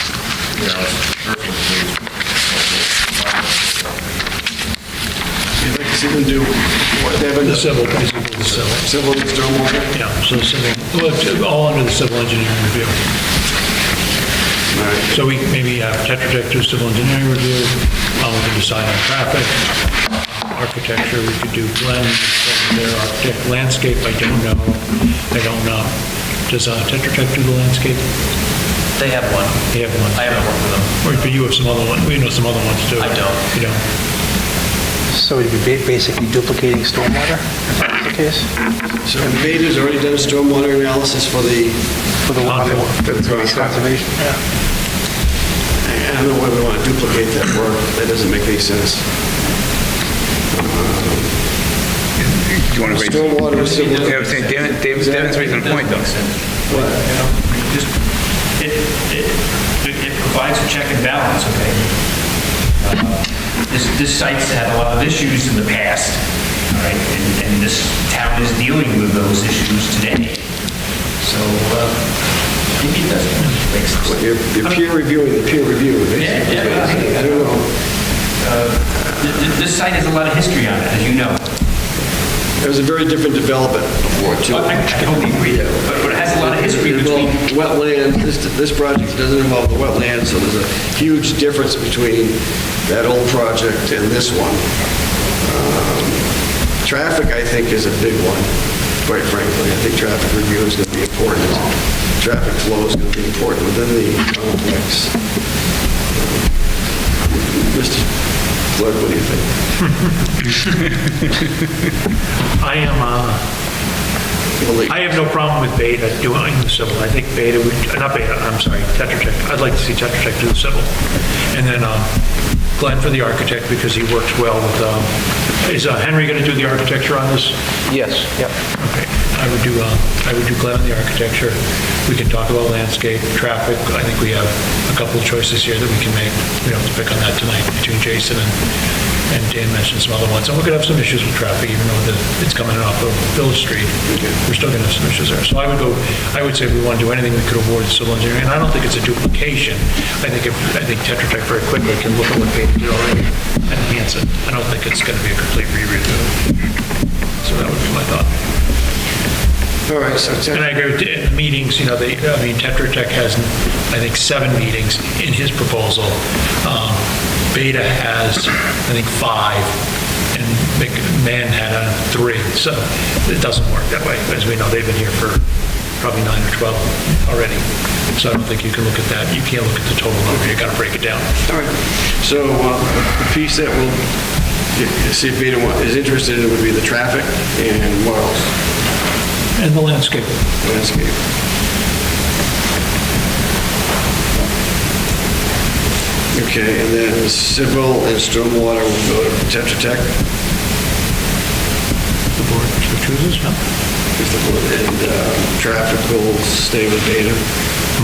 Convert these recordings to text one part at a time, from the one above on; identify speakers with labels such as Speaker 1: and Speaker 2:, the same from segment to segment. Speaker 1: you know, urban news.
Speaker 2: If they can do what they've
Speaker 3: The
Speaker 2: been,
Speaker 3: civil, basically the civil,
Speaker 2: civil stormwater.
Speaker 3: yeah, so civil, well, it's all under the civil engineering review. So we maybe have Tetra Tech do civil engineering review, um, we can decide on traffic, uh, architecture, we could do Glenn, their architect, landscape, I don't know, I don't know. Does uh, Tetra Tech do the landscape?
Speaker 4: They have one.
Speaker 3: They have one.
Speaker 4: I haven't worked with
Speaker 3: Or
Speaker 4: them.
Speaker 3: but you have some other one, we know some other ones too.
Speaker 4: I don't.
Speaker 3: You don't?
Speaker 5: So it'd be ba- basically duplicating stormwater, if that's the case?
Speaker 2: So Vader's already done a stormwater analysis for the,
Speaker 5: For the
Speaker 3: Not the-
Speaker 5: conservation?
Speaker 2: I don't know why we want to duplicate that work, that doesn't make any sense.
Speaker 6: Do you want to raise?
Speaker 2: Stormwater, civil-
Speaker 6: Yeah, I'm saying, Devin- Devin- Devin's raising a point, though.
Speaker 4: Just, it, it, it provides a check and balance, okay? Uh, This, this site's had a lot of issues in the past, all right, and, and this town is dealing with those issues today. So, uh, maybe it doesn't make sense.
Speaker 2: You're you're peer reviewing the peer review.
Speaker 4: Yeah,
Speaker 2: basically.
Speaker 4: yeah.
Speaker 2: I don't know.
Speaker 4: Th- th- This site has a lot of history on it, as you know.
Speaker 2: It was a very different development before, too.
Speaker 4: I I totally agree, but but it has a lot of history
Speaker 2: It
Speaker 4: between
Speaker 2: involved Wetland, this, this project doesn't involve the wetland, so there's a huge difference between that old project and this one. Um, Traffic, I think, is a big one, quite frankly. I think traffic review is going to be important. Traffic flow is going to be important within the complex. Mr. Clerk, what do you think?
Speaker 3: I am, uh, I have no problem with Beta doing the civil. I think Beta would, not Beta, I'm sorry, Tetra Tech. I'd like to see Tetra Tech do the civil. And then um, Glenn for the architect, because he works well with, um, is uh, Henry going to do the architecture on this?
Speaker 5: Yes, yep.
Speaker 3: Okay, I would do, uh, I would do Glenn on the architecture. We can talk about landscape, traffic. I think we have a couple of choices here that we can make. We don't have to pick on that tonight between Jason and, and Dan mentioned some other ones. And we could have some issues with traffic, even though the- it's coming off of Village Street. We're still gonna have some issues there. So I would go, I would say if we want to do anything, we could award civil engineering. And I don't think it's a duplication. I think, if- I think Tetra Tech very quickly can look at what they did already and enhance it. I don't think it's gonna be a complete re-review. So that would be my thought.
Speaker 2: All right, so Ted-
Speaker 3: And I agree with the meetings, you know, the, I mean, Tetra Tech has, I think, seven meetings in his proposal. Um, Beta has, I think, five, and Mc- Mann had uh, three, so it doesn't work that way. As we know, they've been here for probably nine or 12 already, so I don't think you can look at that, you can't look at the total number, you gotta break it down.
Speaker 2: All right, so uh, the piece that will, see if Peter wa- is interested in would be the traffic and what else?
Speaker 3: And the landscape.
Speaker 2: Landscape. Okay, and then civil and stormwater will go to Tetra Tech,
Speaker 3: The board chooses, no?
Speaker 2: if the board- and uh, traffic will stay with Beta.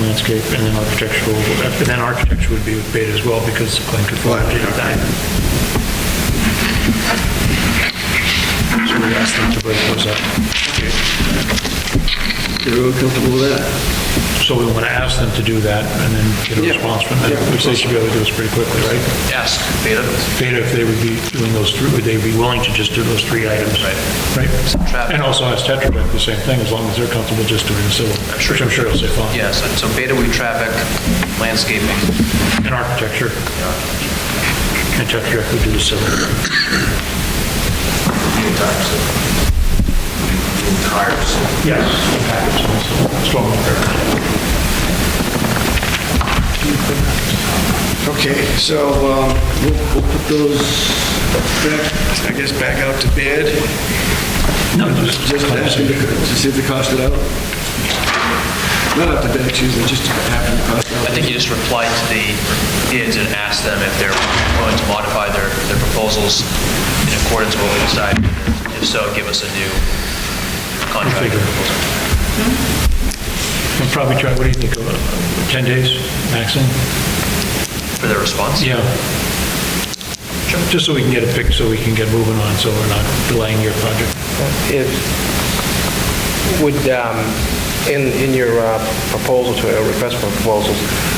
Speaker 3: Landscape, and then architectural, and then architecture would be with Beta as well, because Glenn could fall into that. So we asked them to break those up.
Speaker 2: Everyone comfortable with that?
Speaker 3: So we want to ask them to do that and then get a
Speaker 2: Yeah.
Speaker 3: response from them, which they should be able to do this pretty quickly, right?
Speaker 4: Ask Beta,
Speaker 3: Beta, if they would be doing those three, would they be willing to just do those three items? Right?
Speaker 4: Traffic.
Speaker 3: And also ask Tetra Tech the same thing, as long as they're comfortable just doing the civil, which I'm sure they'll say fine.
Speaker 4: yes, so Beta we traffic, landscaping.
Speaker 3: And architecture. And Tetra Tech would do the civil. Yes. Stormwater.
Speaker 2: Okay, so um, we'll we'll put those back, I guess, back out to bid.
Speaker 3: No,
Speaker 2: Just ask him to to see if they cost it out. Not up to bed, excuse me, just happen to cost
Speaker 7: I
Speaker 2: out.
Speaker 7: think you just reply to the bids and ask them if they're willing to modify their, their proposals in accordance with what we decide. If so, give us a new contract.
Speaker 3: Figure. We'll probably try, what do you think, uh, 10 days maximum?
Speaker 7: For their response?
Speaker 3: Yeah. Just so we can get it picked, so we can get moving on, so we're not delaying your project.
Speaker 8: If, would, um, in, in your uh, proposal to, uh, request for proposals,